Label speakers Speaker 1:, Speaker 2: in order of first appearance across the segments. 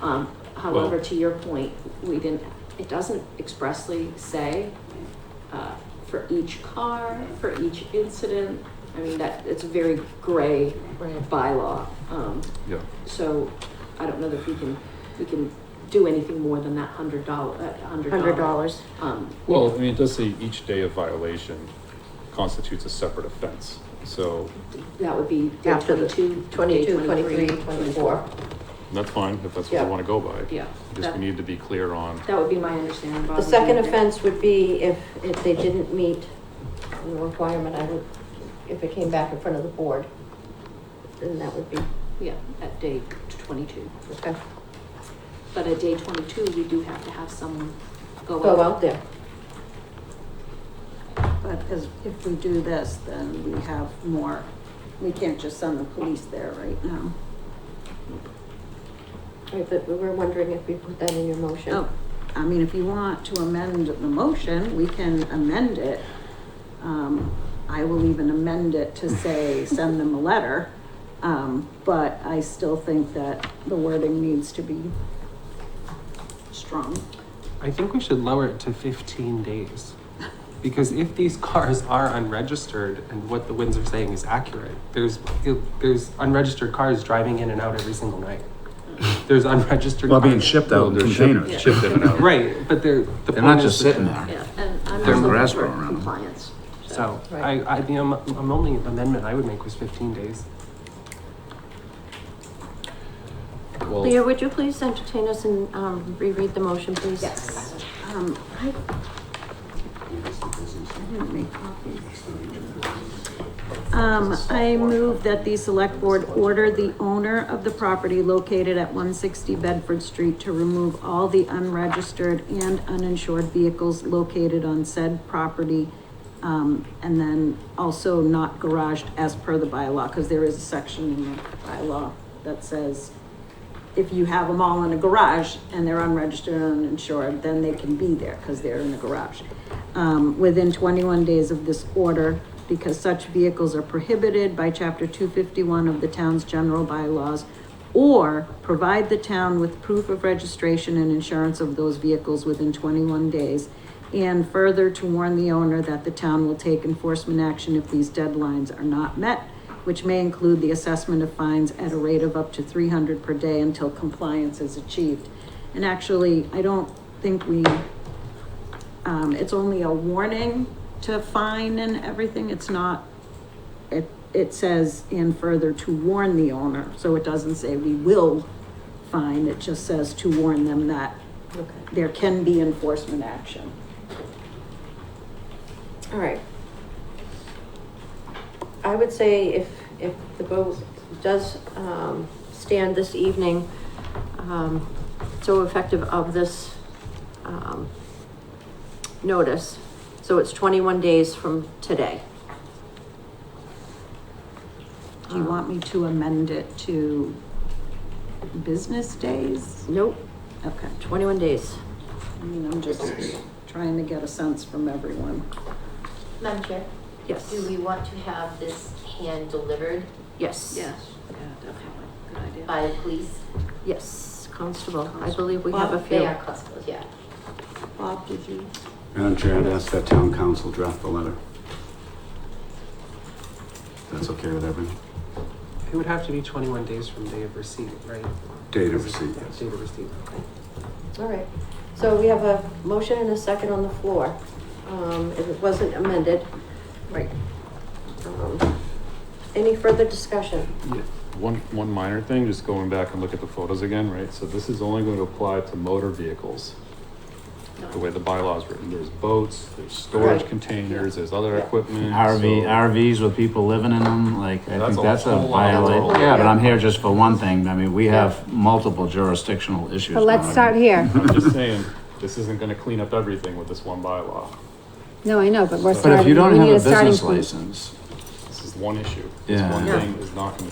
Speaker 1: Um, however, to your point, we didn't, it doesn't expressly say, uh, for each car, for each incident. I mean, that, it's a very gray
Speaker 2: Right.
Speaker 1: bylaw, um,
Speaker 3: Yeah,
Speaker 1: so I don't know that we can, we can do anything more than that hundred dollar, uh, hundred dollar.
Speaker 2: Hundred dollars.
Speaker 1: Um,
Speaker 3: well, I mean, it does say each day of violation constitutes a separate offense, so
Speaker 1: that would be day
Speaker 2: After the
Speaker 1: twenty-two, day
Speaker 2: 22, 23, 24.
Speaker 3: that's fine, if that's what
Speaker 2: Yeah.
Speaker 3: we wanna go by.
Speaker 1: Yeah,
Speaker 3: Just
Speaker 1: that-
Speaker 3: we need to be clear on,
Speaker 1: That would be my understanding, Bob.
Speaker 2: The second offense would be if, if they didn't meet the requirement, I would, if it came back in front of the board, then that would be,
Speaker 1: Yeah, at day twenty-two.
Speaker 2: okay,
Speaker 1: But at day twenty-two, we do have to have someone go
Speaker 2: go
Speaker 1: out.
Speaker 2: out there.
Speaker 4: But as, if we do this, then we have more, we can't just send the police there right now.
Speaker 2: Right, but we were wondering if we put that in your motion.
Speaker 4: Oh, I mean, if you want to amend the motion, we can amend it. Um, I will even amend it to say, send them a letter. Um, but I still think that the wording needs to be strong.
Speaker 5: I think we should lower it to 15 days. Because if these cars are unregistered and what the winds are saying is accurate, there's there's unregistered cars driving in and out every single night. There's unregistered
Speaker 6: Well,
Speaker 5: cars.
Speaker 6: being shipped out
Speaker 3: well,
Speaker 6: in
Speaker 3: they're shipped,
Speaker 6: containers.
Speaker 3: shipped in and out.
Speaker 5: Right, but they're the
Speaker 6: They're not
Speaker 5: point
Speaker 6: just
Speaker 5: is that-
Speaker 6: sitting there.
Speaker 1: Yeah, and I'm
Speaker 6: There's
Speaker 1: also
Speaker 6: grass
Speaker 1: for
Speaker 6: growing around them.
Speaker 1: compliance.
Speaker 5: So
Speaker 2: Right.
Speaker 5: I, I the um, um, only amendment I would make was 15 days.
Speaker 3: Well,
Speaker 2: Leah, would you please entertain us and, um, reread the motion, please?
Speaker 4: Yes. Um, I. I didn't make copies. Um, I move that the select board order the owner of the property located at one sixty Bedford Street to remove all the unregistered and uninsured vehicles located on said property. Um, and then also not garaged as per the bylaw, because there is a section in the bylaw that says if you have them all in a garage and they're unregistered and uninsured, then they can be there because they're in the garage. Um, within twenty-one days of this order, because such vehicles are prohibited by chapter two fifty-one of the town's general bylaws, or provide the town with proof of registration and insurance of those vehicles within twenty-one days, and further to warn the owner that the town will take enforcement action if these deadlines are not met, which may include the assessment of fines at a rate of up to three hundred per day until compliance is achieved. And actually, I don't think we, um, it's only a warning to fine and everything, it's not, it, it says, and further to warn the owner, so it doesn't say we will fine, it just says to warn them that
Speaker 2: Okay,
Speaker 4: there can be enforcement action.
Speaker 2: all right. I would say if, if the vote does, um, stand this evening, um, so effective of this, um, notice, so it's twenty-one days from today.
Speaker 4: Do you want me to amend it to business days?
Speaker 2: Nope,
Speaker 4: Okay,
Speaker 2: twenty-one days.
Speaker 4: I mean, I'm just trying to get a sense from everyone.
Speaker 7: Madam Chair,
Speaker 2: Yes,
Speaker 7: do we want to have this hand-delivered
Speaker 2: yes.
Speaker 1: Yes, yeah, definitely, good idea.
Speaker 7: by the police?
Speaker 2: Yes, constable, I believe we have a
Speaker 7: Well, They
Speaker 2: few.
Speaker 7: are constables, yeah.
Speaker 4: Bob, did you?
Speaker 8: Madam Chair, I'd ask that town council draft the letter. That's okay with everyone?
Speaker 5: It would have to be 21 days from day of receipt, right?
Speaker 8: Date of receipt, yes.
Speaker 5: Day of receipt, okay.
Speaker 2: All right, so we have a motion and a second on the floor. Um, if it wasn't amended. Right. Um, Any further discussion?
Speaker 3: Yeah, One, one minor thing, just going back and look at the photos again, right? So this is only going to apply to motor vehicles. The way the bylaw is written, there's boats, there's storage
Speaker 2: Right.
Speaker 3: containers, there's other
Speaker 2: Yeah.
Speaker 3: equipment.
Speaker 6: RV,
Speaker 3: so-
Speaker 6: RVs with people living in them, like, I
Speaker 3: That's
Speaker 6: think
Speaker 3: a
Speaker 6: that's a
Speaker 3: whole lot. That's
Speaker 6: violation.
Speaker 3: a
Speaker 6: Yeah, but I'm here just for one thing. I mean, we have multiple jurisdictional issues.
Speaker 9: But let's
Speaker 6: now.
Speaker 9: start here.
Speaker 3: I'm just saying, this isn't gonna clean up everything with this one bylaw.
Speaker 9: No, I know, but we're starting.
Speaker 6: But if you don't
Speaker 9: we
Speaker 6: have
Speaker 9: need
Speaker 6: a
Speaker 9: starting
Speaker 6: business
Speaker 9: point.
Speaker 6: license,
Speaker 3: This is one issue. This
Speaker 6: Yeah.
Speaker 3: one
Speaker 6: Yeah.
Speaker 3: thing is not gonna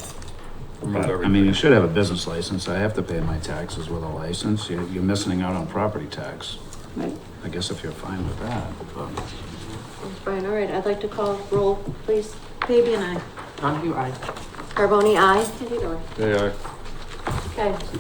Speaker 3: remove
Speaker 6: I
Speaker 3: everything.
Speaker 6: mean, you should have a business license. I have to pay my taxes with a license. You're, you're missing out on property tax.
Speaker 2: Right.
Speaker 6: I guess if you're fine with that, but.
Speaker 2: Thanks, Brian, all right, I'd like to call roll, please.
Speaker 4: Baby and I.
Speaker 5: Donahue, aye.
Speaker 2: Carboni, aye?
Speaker 1: Candida.
Speaker 3: They are.
Speaker 2: Okay.